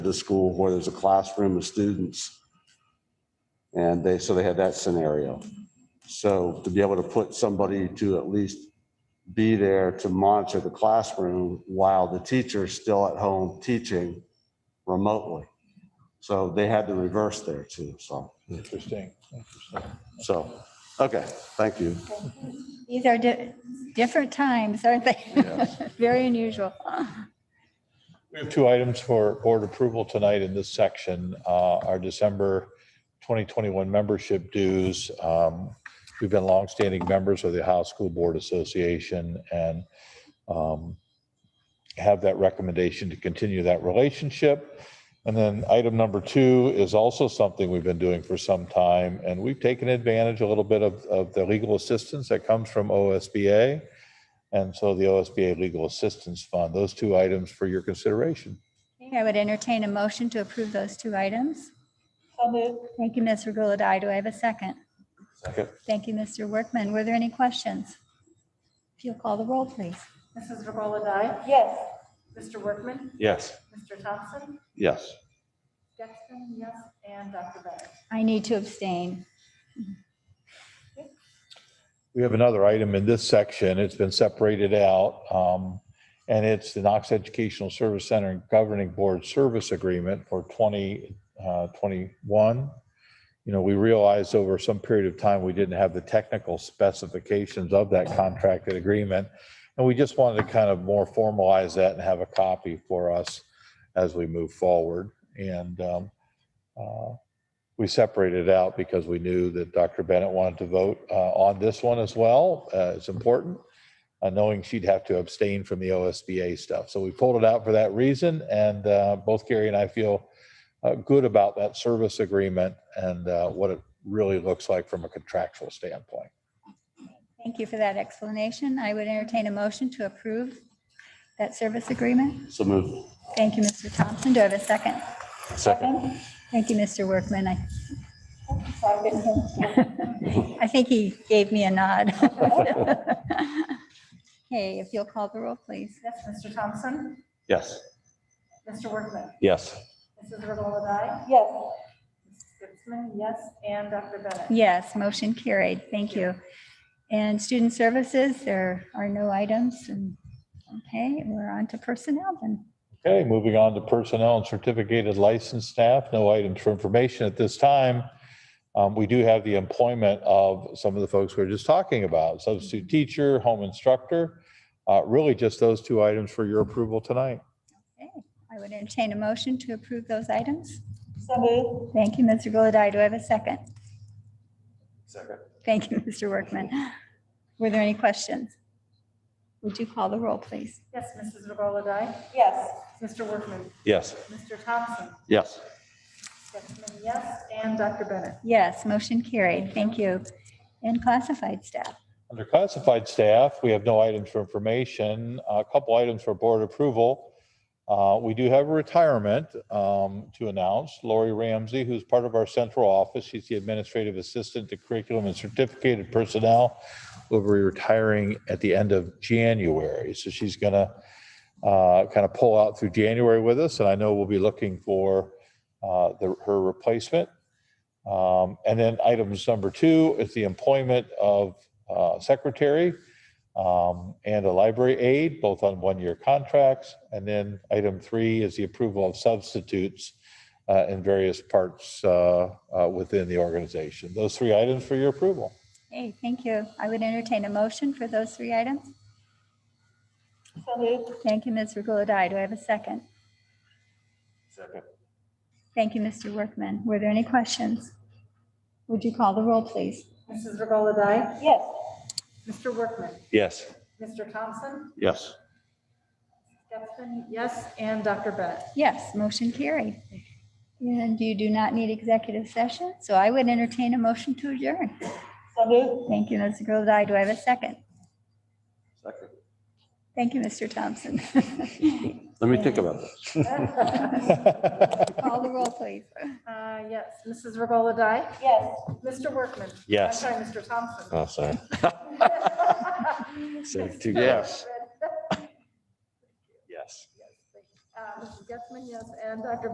the school where there's a classroom of students. And they, so they had that scenario. So to be able to put somebody to at least be there to monitor the classroom while the teacher's still at home teaching remotely. So they had the reverse there too, so, Interesting. so, okay, thank you. These are di- different times, aren't they? Yes. Very unusual. We have two items for board approval tonight in this section. Uh, Our December 2021 membership dues. Um, We've been longstanding members of the Ohio School Board Association and um, have that recommendation to continue that relationship. And then item number two is also something we've been doing for some time, and we've taken advantage a little bit of, of the legal assistance that comes from OSBA. And so the OSBA Legal Assistance Fund, those two items for your consideration. Okay, I would entertain a motion to approve those two items. Thank you, Ms. Regola-Dye. Do I have a second? Second. Thank you, Mr. Workman. Were there any questions? If you'll call the roll, please. Mrs. Robola Dyke? Yes. Mr. Workman? Yes. Mr. Thompson? Yes. Dexton, yes, and Dr. Bennett. I need to abstain. We have another item in this section. It's been separated out. um, And it's the Knox Educational Service Center Governing Board Service Agreement for 2021. You know, we realized over some period of time, we didn't have the technical specifications of that contracted agreement. And we just wanted to kind of more formalize that and have a copy for us as we move forward. And um, uh, we separated it out because we knew that Dr. Bennett wanted to vote uh, on this one as well. Uh, It's important, uh, knowing she'd have to abstain from the OSBA stuff. So we pulled it out for that reason, and uh, both Gary and I feel uh, good about that service agreement and uh, what it really looks like from a contractual standpoint. Thank you for that explanation. I would entertain a motion to approve that service agreement. So move. Thank you, Mr. Thompson. Do I have a second? Second. Thank you, Mr. Workman. I I think he gave me a nod. Okay, if you'll call the roll, please. Yes, Mr. Thompson? Yes. Mr. Workman? Yes. Mrs. Robola Dyke? Yes. Dexton, yes, and Dr. Bennett. Yes, motion carried. Thank you. And Student Services, there are no items. and Okay, we're on to personnel then. Okay, moving on to personnel and certificated licensed staff, no items for information at this time. Um, We do have the employment of some of the folks we were just talking about, substitute teacher, home instructor. Uh, Really just those two items for your approval tonight. Okay, I would entertain a motion to approve those items. Thank you, Mr. Gulladye. Do I have a second? Second. Thank you, Mr. Workman. Were there any questions? Would you call the roll, please? Yes, Mrs. Robola Dyke? Yes. Mr. Workman? Yes. Mr. Thompson? Yes. Dexton, yes, and Dr. Bennett. Yes, motion carried. Thank you. And classified staff. Under classified staff, we have no items for information, a couple items for board approval. Uh, We do have a retirement um, to announce. Lori Ramsey, who's part of our central office, she's the administrative assistant to curriculum and certificated personnel, will be retiring at the end of January. So she's going to kind of pull out through January with us, and I know we'll be looking for uh, the- her replacement. Um, And then items number two is the employment of uh, secretary um, and a library aide, both on one-year contracts. And then item three is the approval of substitutes uh, in various parts uh, uh, within the organization. Those three items for your approval. Hey, thank you. I would entertain a motion for those three items. Thank you, Ms. Regola-Dye. Do I have a second? Second. Thank you, Mr. Workman. Were there any questions? Would you call the roll, please? Mrs. Robola Dyke? Yes. Mr. Workman? Yes. Mr. Thompson? Yes. Dexton, yes, and Dr. Bennett. Yes, motion carried. And you do not need executive session, so I would entertain a motion to adjourn. Thank you, Ms. Regola-Dye. Do I have a second? Second. Thank you, Mr. Thompson. Let me think about this. Call the roll, please. Uh, Yes, Mrs. Robola Dyke? Yes. Mr. Workman? Yes. I'm sorry, Mr. Thompson. Oh, sorry. Save two yes. Yes. Mrs. Uh, Getzmann, yes, and Dr.